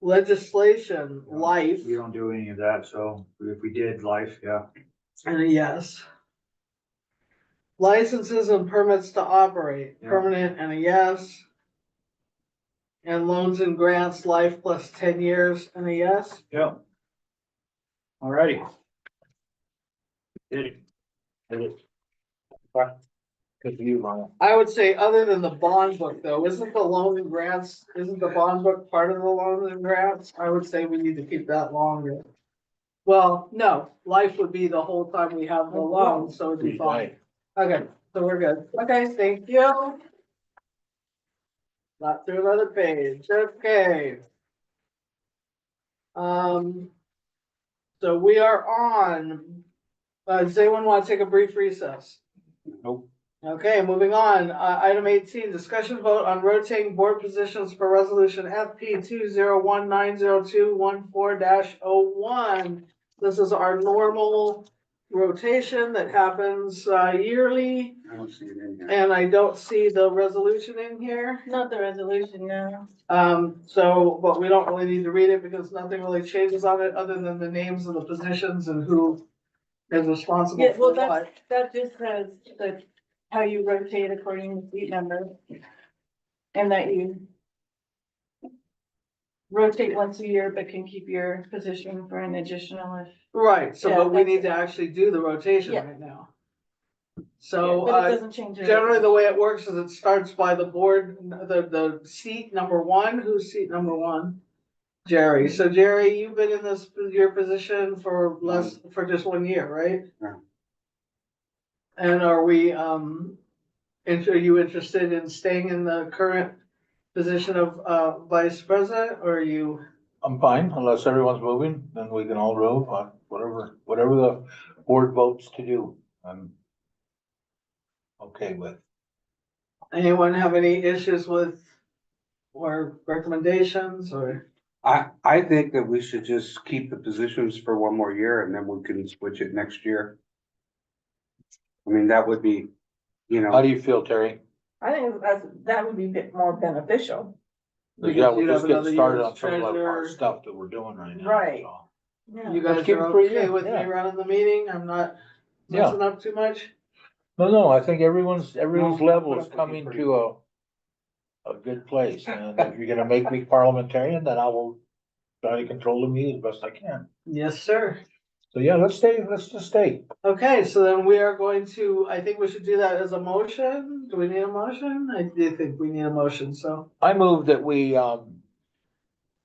legislation, life, We don't do any of that, so if we did life, yeah. and a yes. Licenses and permits to operate, Yeah. permanent and a yes. And loans and grants, life plus ten years and a yes. Yeah. Alrighty. Did it. Did it. Good for you, Lana. I would say, other than the bond book though, isn't the loan and grants, isn't the bond book part of the loans and grants? I would say we need to keep that longer. Well, no, life would be the whole time we have the loan, so it'd be fine. Okay, so we're good. Okay, thank you. Not through another page, okay. Um. So we are on, uh, does anyone want to take a brief recess? Nope. Okay, moving on, uh, item eighteen, discussion vote on rotating board positions for resolution FP two zero one nine zero two one four dash oh one. This is our normal rotation that happens, uh, yearly. I don't see it in here. And I don't see the resolution in here, Not the resolution, no. um, so, but we don't really need to read it because nothing really changes on it other than the names of the positions and who is responsible Yeah, for well, that's, what. that just says that how you rotate according to seat number. And that you rotate once a year, but can keep your position for an additional if. Right, so, yeah, but we that's- need to actually do the rotation Yeah. right now. So, But uh, it doesn't change. it. generally the way it works is it starts by the board, the, the seat number one, who's seat number one? Jerry, so Jerry, you've been in this, your position for less, for just one year, right? Yeah. And are we, um, and are you interested in staying in the current position of, uh, vice president, or are you? I'm fine, unless everyone's moving, then we can all row, uh, whatever, whatever the board votes to do, I'm okay with. Anyone have any issues with, or recommendations, or, I, I think that we should just keep the positions for one more year and then we can switch it next year. I mean, that would be, you How know, do you feel, Terry? I think that's, that would be a bit more beneficial. Because Yeah, we're you'd have just getting another started year's on some of our treasurer. stuff that we're doing right now. Right. so. you Yeah. guys keep it are for a year, okay with me yeah. running the meeting, I'm not Yeah. messing up too much? No, no, I think everyone's, everyone's No, level but is I think coming pretty- to a, a good place, and if you're gonna make me parliamentarian, then I will try to control the meeting as best I can. Yes, sir. So, yeah, let's stay, let's just stay. Okay, so then we are going to, I think we should do that as a motion. Do we need a motion? I do think we need a motion, so. I move that we, um,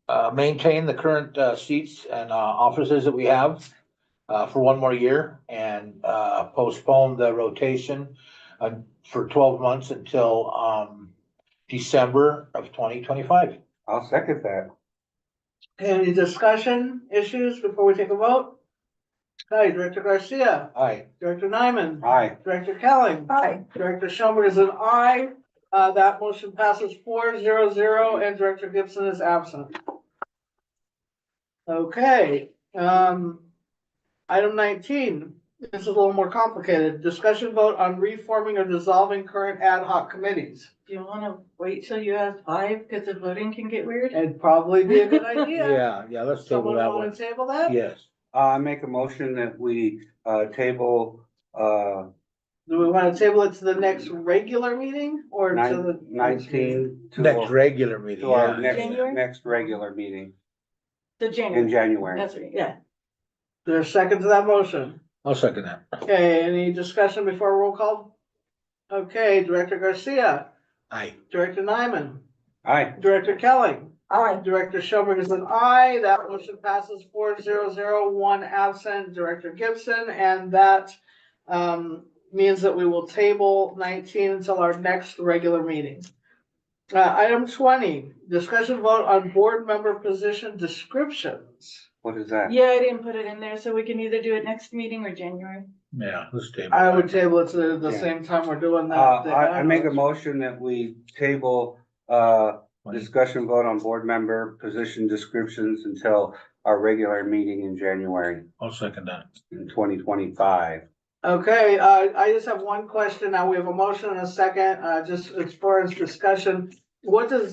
uh, maintain the current, uh, seats and, uh, offices that we have, uh, for one more year and, uh, postpone the rotation, uh, for twelve months until, um, December of twenty twenty-five. I'll second that. Any discussion issues before we take a vote? Hi, Director Garcia, Aye. Director Nyman, Aye. Director Kelling, Aye. Director Schoenberg is an aye. Uh, that motion passes four zero zero and Director Gibson is absent. Okay, um, item nineteen, this is a little more complicated. Discussion vote on reforming or dissolving current ad hoc committees. Do you wanna wait till you have five, cause the voting can get weird? It'd probably be a good idea. Yeah, yeah, let's table Someone that wanna one. table that? Yes. Uh, I make a motion that we, uh, table, uh, Do we wanna table it to the next regular meeting or to nine- the? nineteen to, Next our- regular meeting. to our yeah. next, January? next regular meeting The in January, January. that's right, yeah. There's a second to that motion. I'll second that. Okay, any discussion before roll call? Okay, Director Garcia, Aye. Director Nyman, Aye, Director Kelly, Aye. Director Schoenberg is an aye. That motion passes four zero zero, one absent, Director Gibson, and that um, means that we will table nineteen until our next regular meeting. Uh, item twenty, discussion vote on board member position descriptions. what is that? Yeah, I didn't put it in there, so we can either do it next meeting or January. Yeah, let's table. I that. would table it to the Yeah. same time we're doing Uh, that. the I, I make a ad hoc. motion that we table, uh, Discussion vote on board member position descriptions until our regular meeting in January I'll second that. in twenty twenty-five. Okay, uh, I just have one question. Now, we have a motion and a second, uh, just as far as discussion. What does